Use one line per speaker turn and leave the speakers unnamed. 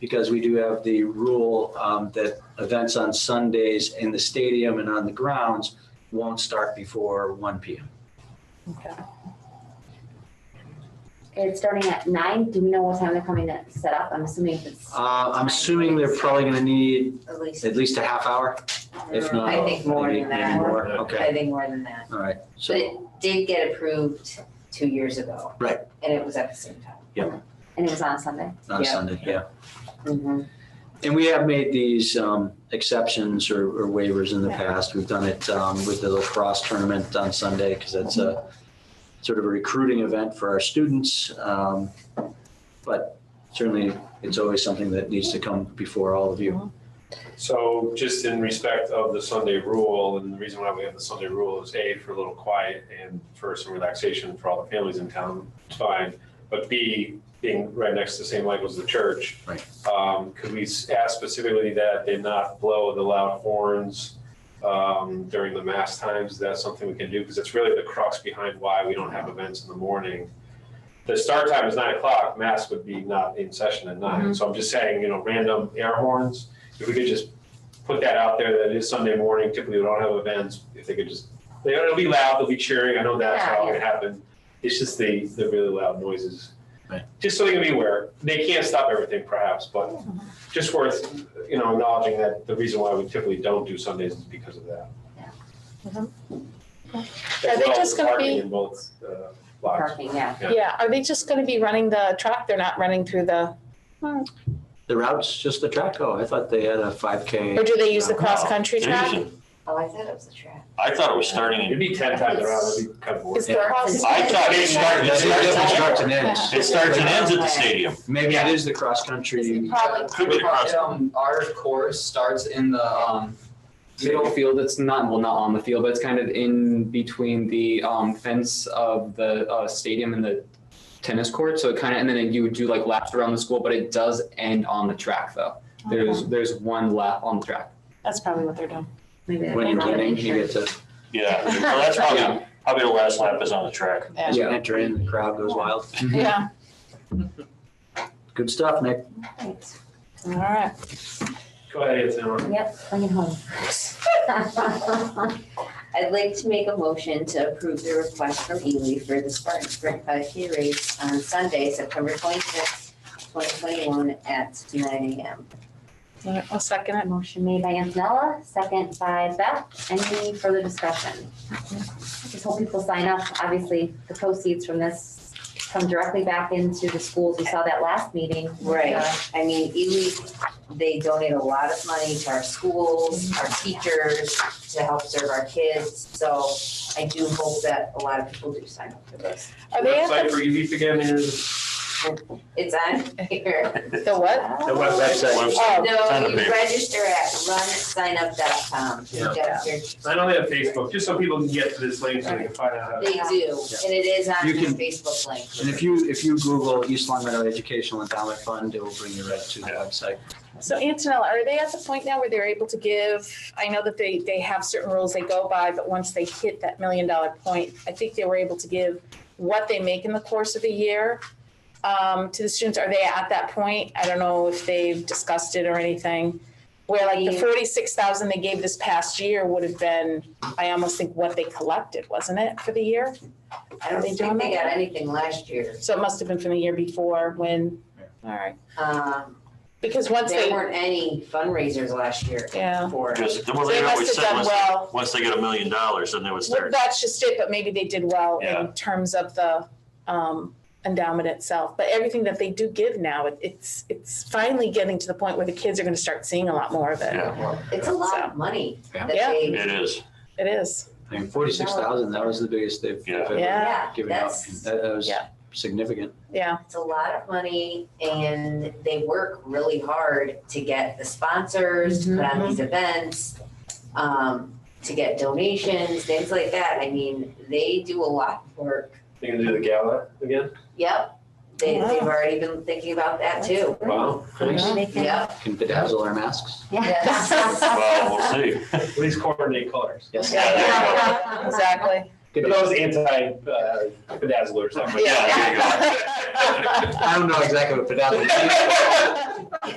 because we do have the rule um, that events on Sundays in the stadium and on the grounds won't start before 1 PM.
Okay.
It's starting at nine. Do we know what time they're coming to set up? I'm assuming if it's
Uh, I'm assuming they're probably going to need
At least,
at least a half hour, if not.
I think more
maybe-
than
maybe
that.
more.
I
Okay,
think more than that.
all right. So
But it did get approved two years ago.
Right.
And it was at the same time.
and it was on Sunday.
on
yeah.
Sunday, yeah.
Mm-hmm.
And we have made these um, exceptions or or waivers in the past. We've done it um, with the lacrosse tournament on Sunday because that's a sort of a recruiting event for our students. Um, But certainly, it's always something that needs to come before all of
Uh-huh.
you.
So just in respect of the Sunday rule, and the reason why we have the Sunday rule is A, for a little quiet and for some relaxation for all the families in town, it's fine. But B, being right next to St. Michael's the church.
Right.
Um, could we s- ask specifically that they not blow the loud horns um, during the mass times? That's something we can do, because it's really the crux behind why we don't have events in the morning the start time is nine o'clock, mass would be not in session at
Mm-hmm.
nine. So I'm just saying, you know, random air horns, if we could just put that out there, that it is Sunday morning, typically we don't have events, if they could just, they- it'll be loud, they'll be cheering, I know that's
Yeah,
how
yeah.
it happened. It's just the, the really loud noises.
Right.
Just so they can be aware, they can't stop everything perhaps, but just worth, you know, acknowledging that the reason why we typically don't do Sundays is because of that.
Yeah.
Mhm.
As
Are they
well as
just
the
gonna
parking
be-
in both, uh, lots.
Parking, yeah.
Yeah.
Yeah, are they just gonna be running the track? They're not running through the,
The route's just the track, oh, I thought they had a
or
5K.
do they use the
No.
cross-country track?
Oh, I thought it was a trap.
I thought it was starting,
It'd be ten times around, it'd be kind of boring.
Is the
Yeah.
cross?
I thought it started,
That's
Yeah.
that's what
Yeah.
starts and ends.
it starts and ends at the stadium.
Maybe it is the cross-country.
Probably.
Could be across.
Um, our course starts in the, um, middle field, it's not, well, not on the field, but it's kind of in between the, um, fence of the, uh, stadium and the tennis court, so it kind of, and then you would do like laps around the school, but it does end on the track though. There's, there's one lap on the track.
That's probably what they're doing.
Maybe they're
When
going
you're
on
winning, you get to,
Yeah, so that's probably, probably the last lap is on the track.
as you enter in, the crowd goes wild.
Yeah,
Good stuff, Nick.
all right.
Go ahead, Anthony.
Yep, bring it home.
I'd like to make a motion to approve the request from Ely for the Spartan Sprint 5K race on Sunday, September 26, 2021 at nine a.m.
All right, I'll second it.
Motion made by Antonella, second by Beth. Any further discussion? Just hope people sign up. Obviously, the proceeds from this come directly back into the schools. We saw that last meeting.
Right.
Uh,
I mean, Ely, they donate a lot of money to our schools, our teachers, to help serve our kids. So I do hope that a lot of people do sign up for this.
Are they at
Website for EVP again is
It's on here.
the, the what?
The web- website.
Oh,
on
No,
the
you
page.
register at runsignup.com. You
Yeah.
gotta search-
I know they have Facebook, just so people can get to this link so they can find out how
They
to.
do, and it is on
You
their
can-
Facebook link.
And if you, if you Google East Long Meadow Educational Endowment Fund, it will bring you right to the website.
So Antonella, are they at the point now where they're able to give, I know that they, they have certain rules they go by, but once they hit that million dollar point, I think they were able to give what they make in the course of the year um, to the students. Are they at that point? I don't know if they've discussed it or anything. Where like the
Yeah.
forty-six thousand they gave this past year would have been, I almost think what they collected, wasn't it, for the year?
I don't
They
think
doing
they
that?
got anything last year.
So it must have been from the year before when, all right,
Um,
because once
There
they,
weren't any fundraisers last year
yeah.
for.
Because, well,
They
they
must
always
have
said,
done
once,
well.
they- once they get a million dollars, then they would
Well,
start.
that's just it, but maybe they did well
Yeah.
in terms of the um endowment itself. But everything that they do give now, it- it's it's finally getting to the point where the kids are gonna start seeing a lot more of it.
Yeah,
It's a lot of money that
Yeah.
they,
it is,
It is.
I mean, forty-six thousand, that was the biggest they've they've ever
Yeah.
yeah,
given out.
that's,
That that was
Yeah.
significant.
Yeah.
it's a lot of money and they work really hard to get the sponsors, to put
Mm-hmm.
on these events, um, to get donations, things like that. I mean, they do a lot of work.
They can do the gala again?
Yep, they,
Wow.
they've already been thinking about that too.
Wow.
Nice.
They can-
Yep.
Can bedazzle our masks.
well, we'll see.
At least coordinate colors.
Yes.
Yeah, there you go.
Exactly.
Good
But
deal.
that was anti, uh, bedazzlers, I'm like.
Yeah, there you go.
I don't know exactly what bedazzle means.